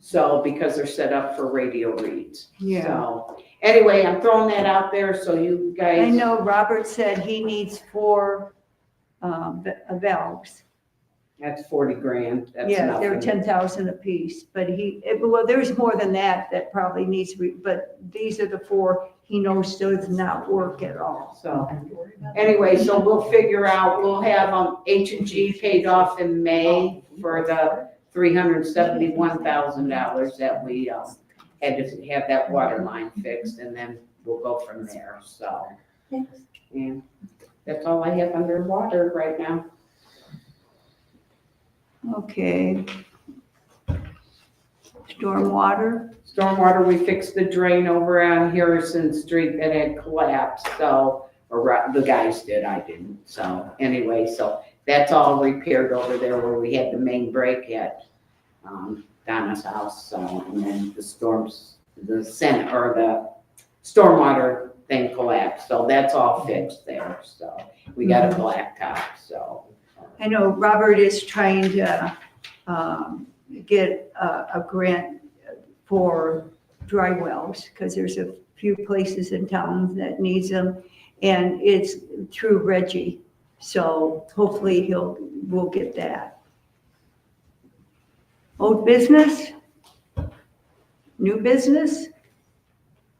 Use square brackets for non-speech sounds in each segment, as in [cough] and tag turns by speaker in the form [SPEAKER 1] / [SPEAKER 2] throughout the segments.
[SPEAKER 1] So, because they're set up for radio reads.
[SPEAKER 2] Yeah.
[SPEAKER 1] So, anyway, I'm throwing that out there so you guys.
[SPEAKER 2] I know Robert said he needs four um, v- valves.
[SPEAKER 1] That's forty grand, that's
[SPEAKER 2] Yeah, they're
[SPEAKER 1] nothing.
[SPEAKER 2] ten thousand apiece, but he, it- well, there's more than that that probably needs to be, but these are the four he knows does not work at all.
[SPEAKER 1] So, anyway, so we'll figure out, we'll have, um, H and G paid off in May for the three hundred and seventy-one thousand dollars that we, um, had to have that water line fixed, and then we'll go from there, so. And that's all I have underwater right now.
[SPEAKER 2] Okay. Stormwater,
[SPEAKER 1] Stormwater, we fixed the drain over on Harrison Street that had collapsed, so, or ri- the guys did, I didn't, so, anyway, so that's all repaired over there where we had the main break at, um, Donna's house, so, and then the storms, the center, or the stormwater thing collapsed, so that's all fixed there, so, we got a blacktop, so.
[SPEAKER 2] I know Robert is trying to um, get a, a grant for dry wells, because there's a few places in town that needs them, and it's through Reggie, so hopefully he'll, we'll get that. Old business? New business?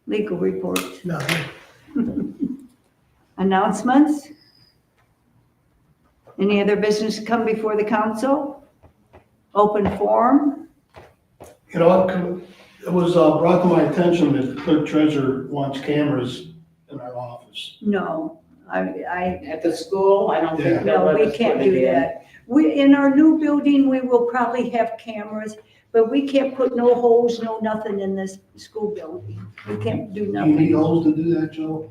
[SPEAKER 2] Legal report,
[SPEAKER 3] No,
[SPEAKER 2] [laughs] announcements? Any other business come before the council? Open forum?
[SPEAKER 3] you know, it com- it was uh, brought to my attention that the clerk treasurer wants cameras in our office.
[SPEAKER 2] No, I, I,
[SPEAKER 1] At the school, I don't think they'll
[SPEAKER 2] No,
[SPEAKER 1] let
[SPEAKER 2] we
[SPEAKER 1] us
[SPEAKER 2] can't
[SPEAKER 1] put it
[SPEAKER 2] do
[SPEAKER 1] in.
[SPEAKER 2] that. We, in our new building, we will probably have cameras, but we can't put no holes, no nothing in this school building. We can't
[SPEAKER 3] Do
[SPEAKER 2] do
[SPEAKER 3] you need
[SPEAKER 2] nothing.
[SPEAKER 3] holes to do that, Joe?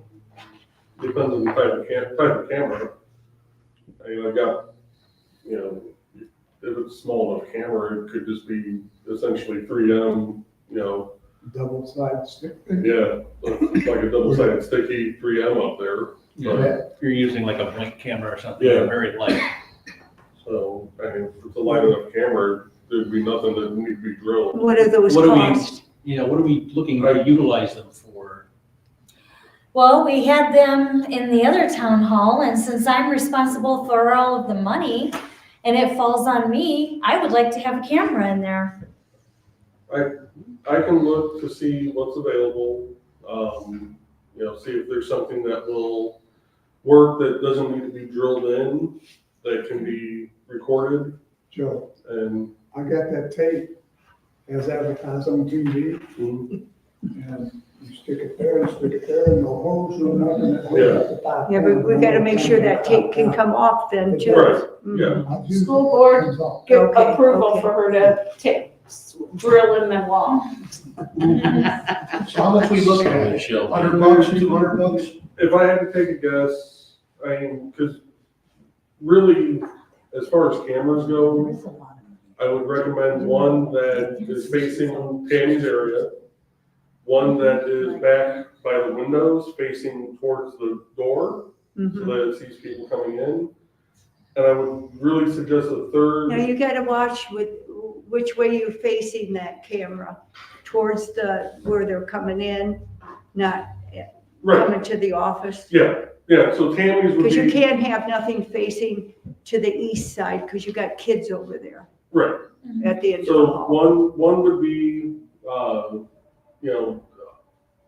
[SPEAKER 4] Depends on the type of cam, type of camera. I mean, I've got, you know, if it's small enough camera, it could just be essentially three M, you know,
[SPEAKER 5] double sided stick.
[SPEAKER 4] yeah, like a double sided sticky, three M up there. But,
[SPEAKER 5] Yeah.
[SPEAKER 6] if you're using like a blink camera or something,
[SPEAKER 4] Yeah.
[SPEAKER 6] very light.
[SPEAKER 4] so, I mean, if it's a light enough camera, there'd be nothing that need to be drilled.
[SPEAKER 2] What are those
[SPEAKER 6] What do we-
[SPEAKER 2] costs?
[SPEAKER 6] You know, what are we looking to utilize them for?
[SPEAKER 7] Well, we had them in the other town hall, and since I'm responsible for all of the money and it falls on me, I would like to have a camera in there.
[SPEAKER 4] I can look to see what's available, um, you know, see if there's something that will work that doesn't need to be drilled in, that can be recorded
[SPEAKER 5] Joe,
[SPEAKER 4] and
[SPEAKER 5] I got that tape as advertised on TV
[SPEAKER 4] mm,
[SPEAKER 5] and you stick it there and stick it there and no holes, no nothing. that holds
[SPEAKER 4] Yeah.
[SPEAKER 5] up the top
[SPEAKER 2] Yeah, but we
[SPEAKER 5] down.
[SPEAKER 2] gotta make sure that tape can come off then
[SPEAKER 4] Right,
[SPEAKER 2] too.
[SPEAKER 4] yeah.
[SPEAKER 5] I've used it.
[SPEAKER 1] School board
[SPEAKER 5] It's all-
[SPEAKER 1] give
[SPEAKER 2] Okay,
[SPEAKER 1] approval
[SPEAKER 2] okay.
[SPEAKER 1] for her to ta- drill in the wall.
[SPEAKER 3] So how much we looking at?
[SPEAKER 6] Shell.
[SPEAKER 3] Hundred bucks, two hundred bucks?
[SPEAKER 4] If I had to take a guess, I mean, because really, as far as cameras go, I would recommend one that is facing Tammy's area, one that is back by the windows facing towards the door, so
[SPEAKER 2] Mhm.
[SPEAKER 4] that it sees people coming in. And I would really suggest a
[SPEAKER 2] Now
[SPEAKER 4] third,
[SPEAKER 2] you gotta watch with, which way you're facing that camera, towards the, where they're coming in, not
[SPEAKER 4] right,
[SPEAKER 2] coming to the office.
[SPEAKER 4] yeah, yeah, so Tammy's would
[SPEAKER 2] Because you
[SPEAKER 4] be,
[SPEAKER 2] can't have nothing facing to the east side, because you got kids over there
[SPEAKER 4] right.
[SPEAKER 2] at the end of the
[SPEAKER 4] So
[SPEAKER 2] hall.
[SPEAKER 4] one, one would be, uh, you know,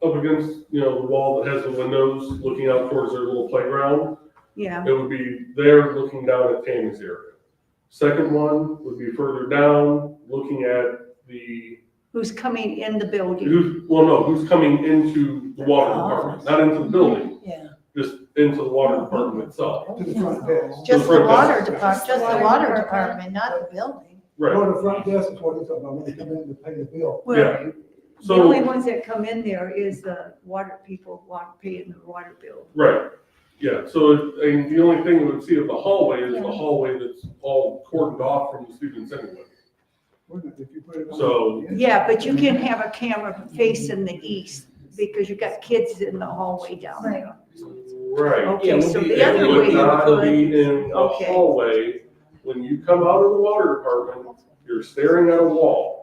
[SPEAKER 4] up against, you know, the wall that has the windows looking out towards their little playground.
[SPEAKER 2] Yeah,
[SPEAKER 4] It would be there looking down at Tammy's area. Second one would be further down, looking at the,
[SPEAKER 2] who's coming in the building.
[SPEAKER 4] who's, well, no, who's coming into the water
[SPEAKER 2] Oh.
[SPEAKER 4] department, not into the building. Yeah. Just into the water department itself.
[SPEAKER 5] To the front desk.
[SPEAKER 4] Just the water
[SPEAKER 8] department,
[SPEAKER 7] just the water department,
[SPEAKER 8] not the building.
[SPEAKER 4] Right,
[SPEAKER 5] Go to the front desk is what it's about when they come in to pay the bill.
[SPEAKER 2] Well, the
[SPEAKER 4] so-
[SPEAKER 2] only ones that come in there is the water people want paying the water bill.
[SPEAKER 4] right. Yeah, so, it- and the only thing we would see of the hallway is the hallway that's all cordoned off from the students anyway.
[SPEAKER 5] If you put it on-
[SPEAKER 4] So-
[SPEAKER 2] Yeah, but you can have a camera facing the east, because you got kids in the hallway down there.
[SPEAKER 4] Right.
[SPEAKER 2] Okay, so the
[SPEAKER 4] It
[SPEAKER 2] other way
[SPEAKER 4] would
[SPEAKER 2] you
[SPEAKER 4] not
[SPEAKER 2] could,
[SPEAKER 4] be in a
[SPEAKER 2] Okay.
[SPEAKER 4] hallway. When you come out of the water department, you're staring at a wall.